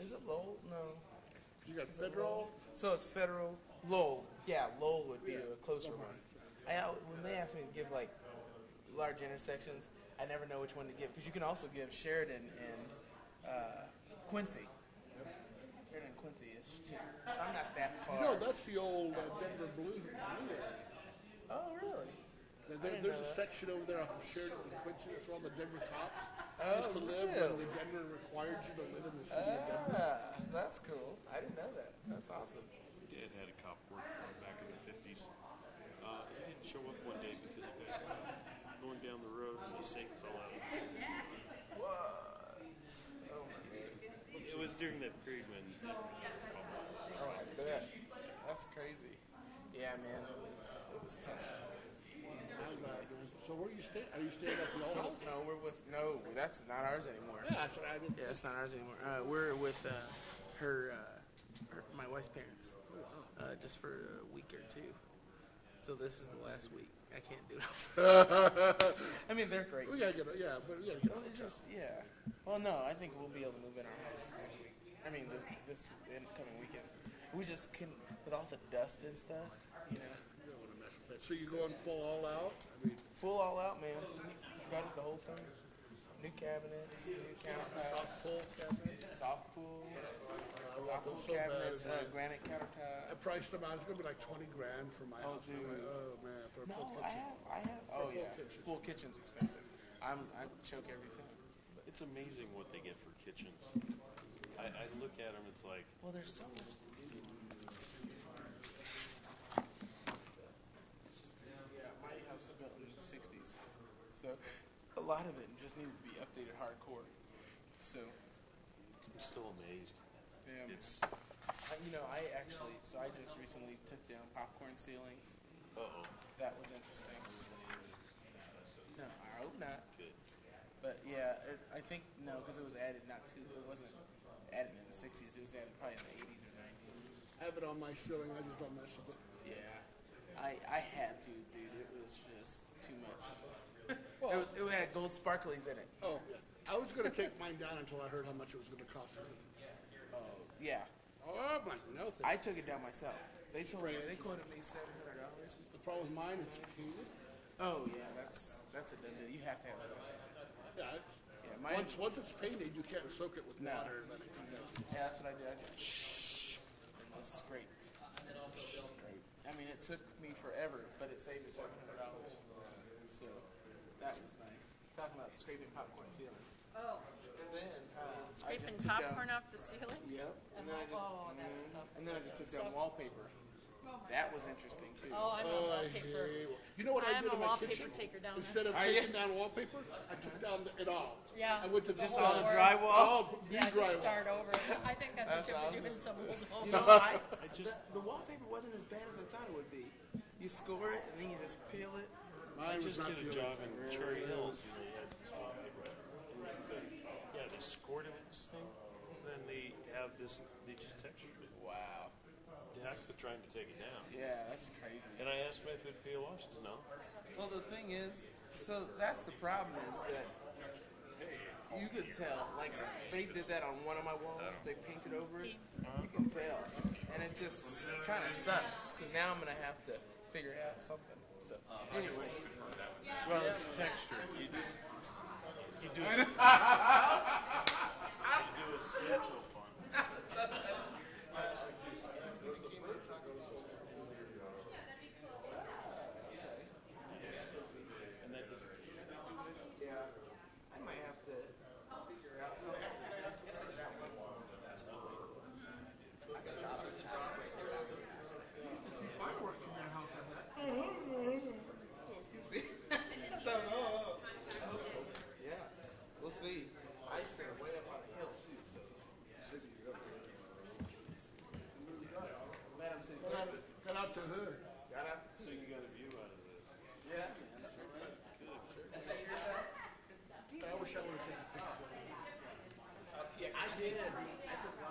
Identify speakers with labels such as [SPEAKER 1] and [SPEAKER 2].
[SPEAKER 1] Is it Lowell? No.
[SPEAKER 2] You got federal.
[SPEAKER 1] So it's federal Lowell. Yeah, Lowell would be a closer one. I al- when they ask me to give like large intersections, I never know which one to give because you can also give Sheridan and uh, Quincy. Sheridan and Quincy is two. I'm not that far.
[SPEAKER 2] No, that's the old uh, Denver Blue. Blue area.
[SPEAKER 1] oh really?
[SPEAKER 2] Now, there,
[SPEAKER 1] didn't
[SPEAKER 2] there's
[SPEAKER 1] know
[SPEAKER 2] a
[SPEAKER 1] that.
[SPEAKER 2] section over there off of Sheridan and Quincy. That's where all the Denver cops
[SPEAKER 1] Oh,
[SPEAKER 2] used to live
[SPEAKER 1] really?
[SPEAKER 2] when the Denver required you to live in the city of Denver.
[SPEAKER 1] Ah, that's cool. I didn't know that. That's awesome.
[SPEAKER 3] Dad had a cop work for him back in the fifties. Uh, he didn't show up one day because he got caught going down the road and his sink fell out.
[SPEAKER 1] What? Oh my god.
[SPEAKER 3] It was during that period when
[SPEAKER 1] Oh, I bet. That's crazy. Yeah, man, it was it was tough.
[SPEAKER 2] And, uh, so where are you staying? Are you staying at the old house?
[SPEAKER 1] No, we're with no. That's not ours anymore.
[SPEAKER 2] Yeah, that's what I did.
[SPEAKER 1] Yeah, that's not ours anymore. Uh, we're with uh, her, uh, her, my wife's parents, uh, just for a week or two. So this is the last week. I can't do it. I mean, they're great.
[SPEAKER 2] Oh, We gotta get a, yeah, but we gotta get a
[SPEAKER 1] Well, it's just yeah. Well, no, I think we'll be able to move in our house next week. I mean, the, this coming weekend. We just couldn't with all the dust and stuff. You know.
[SPEAKER 2] You don't want to mess with that. So you're going full all out? I mean,
[SPEAKER 1] Full all out, man. We gutted the whole thing. New cabinets, new countertops,
[SPEAKER 2] soft pole cabinet?
[SPEAKER 1] soft pool,
[SPEAKER 2] I
[SPEAKER 1] soft
[SPEAKER 2] want
[SPEAKER 1] pool
[SPEAKER 2] those so bad.
[SPEAKER 1] cabinets, uh,
[SPEAKER 2] man.
[SPEAKER 1] granite
[SPEAKER 2] I
[SPEAKER 1] countertop.
[SPEAKER 2] priced them out. It's gonna be like twenty grand for my house. I'm like,
[SPEAKER 1] dude.
[SPEAKER 2] oh man, for a full
[SPEAKER 1] No, I
[SPEAKER 2] kitchen.
[SPEAKER 1] have, I have. Oh yeah,
[SPEAKER 2] kitchen.
[SPEAKER 1] full kitchen's expensive. I'm, I choke every time.
[SPEAKER 3] it's amazing what they get for kitchens. I, I look at them, it's like
[SPEAKER 1] Well, there's so much. to do. Yeah, my house was built in the '60s, so a lot of it just needed to be updated hardcore. So,
[SPEAKER 3] I'm still amazed.
[SPEAKER 1] yeah.
[SPEAKER 3] It's
[SPEAKER 1] I, you know, I actually, so I just recently took down popcorn ceilings.
[SPEAKER 3] uh oh,
[SPEAKER 1] That was interesting. No, I hope not.
[SPEAKER 3] good.
[SPEAKER 1] But yeah, it, I think no, because it was added not too. It wasn't added in the '60s. It was added probably in the '80s or '90s.
[SPEAKER 2] I have it on my ceiling. I just don't mess with it.
[SPEAKER 1] Yeah, I I had to, dude. It was just too much. it
[SPEAKER 2] Well-
[SPEAKER 1] was. It had gold sparklies in it.
[SPEAKER 2] Oh, I was gonna take mine down until I heard how much it was gonna cost.
[SPEAKER 1] Yeah,
[SPEAKER 2] Oh, I'm like, no thank
[SPEAKER 1] I took it down myself. They told me
[SPEAKER 2] Spray it.
[SPEAKER 1] they quoted me seven hundred dollars.
[SPEAKER 2] The problem with mine is it's heated.
[SPEAKER 1] Oh yeah, that's that's a done deal. You have to have that.
[SPEAKER 2] Yeah, it's,
[SPEAKER 1] Yeah, mine-
[SPEAKER 2] once once it's painted, you can't soak it with
[SPEAKER 1] No.
[SPEAKER 2] water and let it come down.
[SPEAKER 1] Yeah, that's what I did. I just and just scraped. Scraped. I mean, it took me forever, but it saved me seven hundred dollars. So that was nice. Talking about scraping popcorn ceilings.
[SPEAKER 4] Oh,
[SPEAKER 1] And then uh, I
[SPEAKER 4] scraping
[SPEAKER 1] just took down-
[SPEAKER 4] popcorn off the ceiling?
[SPEAKER 1] Yep. And then I just
[SPEAKER 4] Oh, that
[SPEAKER 1] mhm.
[SPEAKER 4] stuff.
[SPEAKER 1] and then I just took down wallpaper. That was interesting too.
[SPEAKER 4] Oh, I'm a
[SPEAKER 2] I
[SPEAKER 4] wallpaper.
[SPEAKER 2] hate wa- You know what I,
[SPEAKER 4] I'm
[SPEAKER 2] did
[SPEAKER 4] a
[SPEAKER 2] in my
[SPEAKER 4] wallpaper
[SPEAKER 2] kitchen?
[SPEAKER 4] taker down there.
[SPEAKER 2] Instead of
[SPEAKER 1] Are you?
[SPEAKER 2] taking down wallpaper, I took down the, it all.
[SPEAKER 4] Yeah.
[SPEAKER 2] I went to the
[SPEAKER 4] Just
[SPEAKER 2] whole-
[SPEAKER 4] all the
[SPEAKER 1] drywall?
[SPEAKER 2] All new
[SPEAKER 4] Yeah, just
[SPEAKER 2] drywall.
[SPEAKER 4] start over. I think that's what
[SPEAKER 1] That's
[SPEAKER 4] you have to do
[SPEAKER 1] awesome.
[SPEAKER 4] in some old
[SPEAKER 1] You
[SPEAKER 4] home.
[SPEAKER 1] know, I,
[SPEAKER 3] I
[SPEAKER 1] the,
[SPEAKER 3] just-
[SPEAKER 1] the wallpaper wasn't as bad as I thought it would be. You score it and then you just peel it.
[SPEAKER 3] I
[SPEAKER 2] Mine was
[SPEAKER 3] just
[SPEAKER 2] not
[SPEAKER 3] did a
[SPEAKER 2] good.
[SPEAKER 3] job in Cherry Hills, and they had this wallpaper. But, yeah, they scored it with this thing, and then they have this. They just textured it.
[SPEAKER 1] Wow.
[SPEAKER 3] Heck with trying to take it down.
[SPEAKER 1] Yeah, that's crazy.
[SPEAKER 3] And I asked him if it'd peel off. He says no.
[SPEAKER 1] Well, the thing is, so that's the problem is that you could tell, like they did that on one of my walls. They painted over it. You can tell, and it just kind of sucks because now I'm gonna have to figure out something. So anyway,
[SPEAKER 3] Well, it's texture. You do. You do. A, you do a schedule fun. And that doesn't.
[SPEAKER 1] yeah, I might have to figure out something. I guess I got one. I got it.
[SPEAKER 2] Fireworks from your house. I bet.
[SPEAKER 1] Excuse me. So, uh, yeah, we'll see. I stand way up on a hill too, so it should be real good. Madam City
[SPEAKER 2] Cut
[SPEAKER 1] Clerk,
[SPEAKER 2] out- Cut out the hood.
[SPEAKER 1] got up?
[SPEAKER 3] So you got a view out of this.
[SPEAKER 1] Yeah. man. Is that yours out?
[SPEAKER 2] I wish I would have taken a picture.
[SPEAKER 1] Uh, Yeah, I did. I took Oh,